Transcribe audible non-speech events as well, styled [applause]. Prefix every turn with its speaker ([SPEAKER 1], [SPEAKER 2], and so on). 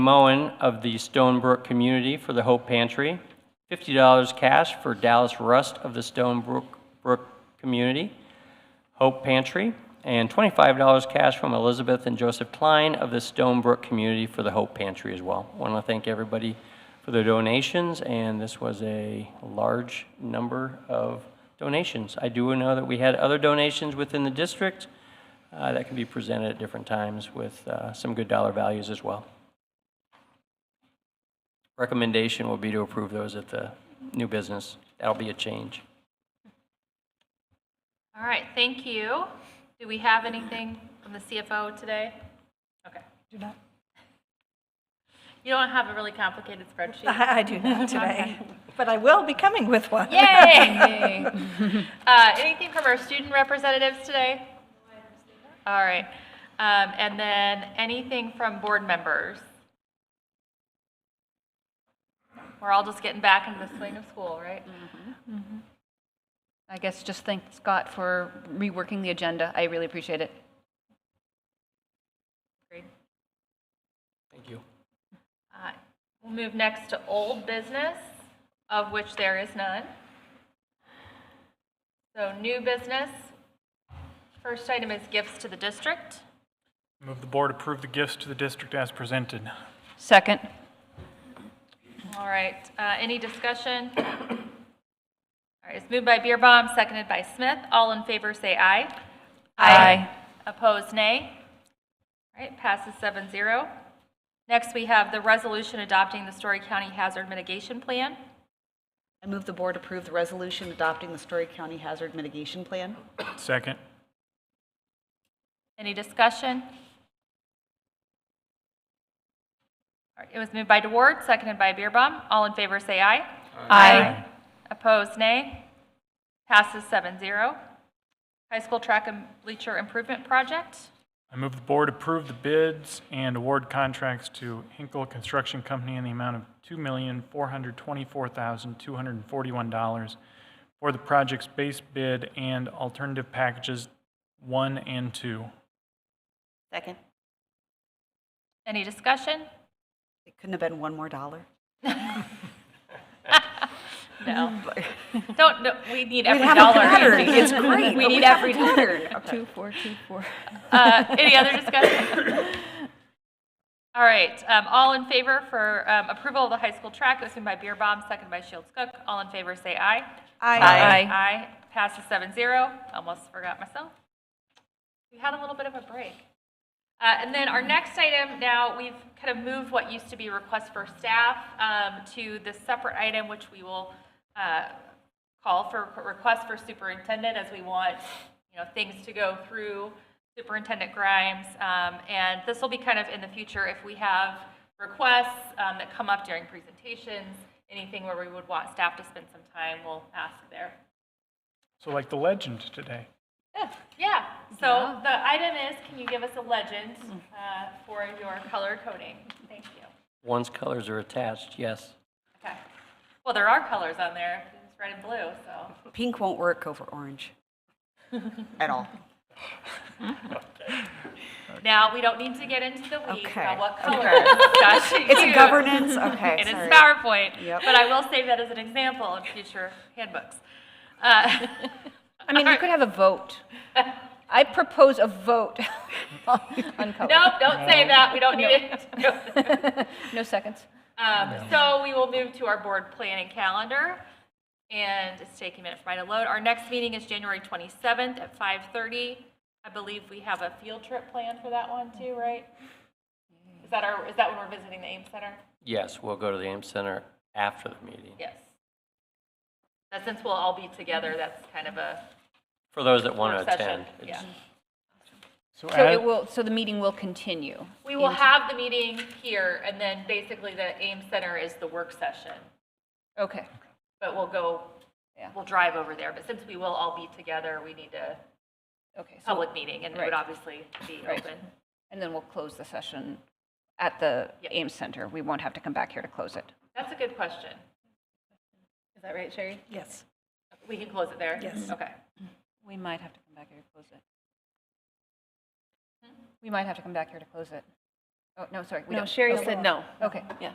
[SPEAKER 1] Moen of the Stonebrook community for the Hope Pantry, $50 cash for Dallas Rust of the Stonebrook Brook community, Hope Pantry, and $25 cash from Elizabeth and Joseph Klein of the Stonebrook community for the Hope Pantry as well. Want to thank everybody for their donations, and this was a large number of donations. I do know that we had other donations within the district uh, that can be presented at different times with uh, some good dollar values as well. Recommendation will be to approve those at the new business. That'll be a change.
[SPEAKER 2] All right, thank you. Do we have anything from the CFO today? Okay. Do not. You don't have a really complicated spreadsheet?
[SPEAKER 3] [laughs] I I do not today, but I will be coming with one.
[SPEAKER 2] Yay! [laughs] Uh, Anything from our student representatives today? All right. Um, And then anything from board members? We're all just getting back into the swing of school, right?
[SPEAKER 4] I guess just thank Scott for reworking the agenda. I really appreciate it.
[SPEAKER 2] Great.
[SPEAKER 1] Thank you.
[SPEAKER 2] Uh, We'll move next to old business, of which there is none. So new business. First item is gifts to the district.
[SPEAKER 5] Move the board approve the gifts to the district as presented.
[SPEAKER 4] Second,
[SPEAKER 2] All right, uh, any discussion? [coughs] All right, it's moved by Beerbaum, seconded by Smith. All in favor, say aye.
[SPEAKER 4] Aye.
[SPEAKER 2] Opposed, nay. All right, passes 7-0. Next, we have the resolution adopting the Story County Hazard Mitigation Plan.
[SPEAKER 6] I move the board approve the resolution adopting the Story County Hazard Mitigation Plan.
[SPEAKER 5] Second.
[SPEAKER 2] Any discussion? All right, It was moved by DeWard, seconded by Beerbaum. All in favor, say aye.
[SPEAKER 4] Aye.
[SPEAKER 2] Opposed, nay. Passes 7-0. High School Track and Bleacher Improvement Project.
[SPEAKER 5] I move the board approve the bids and award contracts to Hinkle Construction Company in the amount of $2,424,241 for the project's base bid and alternative packages one and two.
[SPEAKER 6] Second.
[SPEAKER 2] Any discussion?
[SPEAKER 6] It couldn't have been one more dollar.
[SPEAKER 2] No. Don't, no, we need every
[SPEAKER 6] have a
[SPEAKER 2] dollar.
[SPEAKER 6] pattern. It's great,
[SPEAKER 2] We
[SPEAKER 6] [laughs] but
[SPEAKER 2] need
[SPEAKER 6] we have
[SPEAKER 2] every
[SPEAKER 6] a
[SPEAKER 2] dollar.
[SPEAKER 6] pattern. Okay.
[SPEAKER 4] two, four, two, four.
[SPEAKER 2] Uh, Any other discussion? All right, um, all in favor for um, approval of the high school track, it was moved by Beerbaum, seconded by Shields Cook. All in favor, say aye.
[SPEAKER 4] Aye.
[SPEAKER 2] Aye, passes seven zero. Almost forgot myself. We had a little bit of a break. Uh, And then our next item, now, we've kind of moved what used to be request for staff um, to this separate item, which we will uh, call for request for superintendent, as we want, you know, things to go through Superintendent Grimes. Um, And this will be kind of in the future, if we have requests um, that come up during presentations, anything where we would want staff to spend some time, we'll ask there.
[SPEAKER 5] So like the legend today.
[SPEAKER 2] Yeah, so the item is, can you give us a legend uh, for your color coding? Thank you.
[SPEAKER 1] Once colors are attached, yes.
[SPEAKER 2] Okay. Well, there are colors on there, it's red and blue, so.
[SPEAKER 6] Pink won't work over orange at all.
[SPEAKER 2] Now, we don't need to get into the weeds
[SPEAKER 6] Okay,
[SPEAKER 2] about what
[SPEAKER 6] okay.
[SPEAKER 2] color Josh should
[SPEAKER 6] It's a
[SPEAKER 2] use.
[SPEAKER 6] governance, okay,
[SPEAKER 2] It is
[SPEAKER 6] sorry.
[SPEAKER 2] PowerPoint,
[SPEAKER 6] Yep.
[SPEAKER 2] but I will save that as an example in future handbooks.
[SPEAKER 6] [laughs]
[SPEAKER 2] Uh,
[SPEAKER 4] I mean, you could have a vote. I propose a vote [laughs] on
[SPEAKER 6] Oh.
[SPEAKER 4] color.
[SPEAKER 2] Nope, don't say that, we don't need it. [laughs]
[SPEAKER 4] No seconds.
[SPEAKER 2] Um, So we will move to our board planning calendar, and it's taking a minute for mine to load. Our next meeting is January 27th at 5:30. I believe we have a field trip planned for that one too, right? Is that our, is that when we're visiting the Ames Center?
[SPEAKER 1] Yes, we'll go to the AIM Center after the meeting.
[SPEAKER 2] Yes. But since we'll all be together, that's kind of a
[SPEAKER 1] For those that want
[SPEAKER 2] work
[SPEAKER 1] to
[SPEAKER 2] session.
[SPEAKER 1] attend.
[SPEAKER 2] Yeah.
[SPEAKER 1] it's-
[SPEAKER 4] So it will, so the meeting will continue.
[SPEAKER 2] We will have the meeting here, and then basically the Ames Center is the work session.
[SPEAKER 4] Okay.
[SPEAKER 2] But we'll go,
[SPEAKER 4] Yeah.
[SPEAKER 2] we'll drive over there, but since we will all be together, we need to
[SPEAKER 4] Okay. So,
[SPEAKER 2] public meeting, and it would
[SPEAKER 4] Right.
[SPEAKER 2] obviously be
[SPEAKER 4] Right.
[SPEAKER 2] open.
[SPEAKER 4] and then we'll close the session at the
[SPEAKER 2] Yeah.
[SPEAKER 4] Ames Center. We won't have to come back here to close it.
[SPEAKER 2] That's a good question. Is that right, Sherry?
[SPEAKER 3] Yes.
[SPEAKER 2] We can close it there?
[SPEAKER 3] Yes.
[SPEAKER 2] Okay.
[SPEAKER 4] We might have to come back here to close it. We might have to come back here to close it.
[SPEAKER 7] Oh, no, sorry. we
[SPEAKER 4] No,
[SPEAKER 7] don't-
[SPEAKER 4] Sherry
[SPEAKER 7] okay.
[SPEAKER 4] said no.
[SPEAKER 7] Okay.
[SPEAKER 4] Yeah.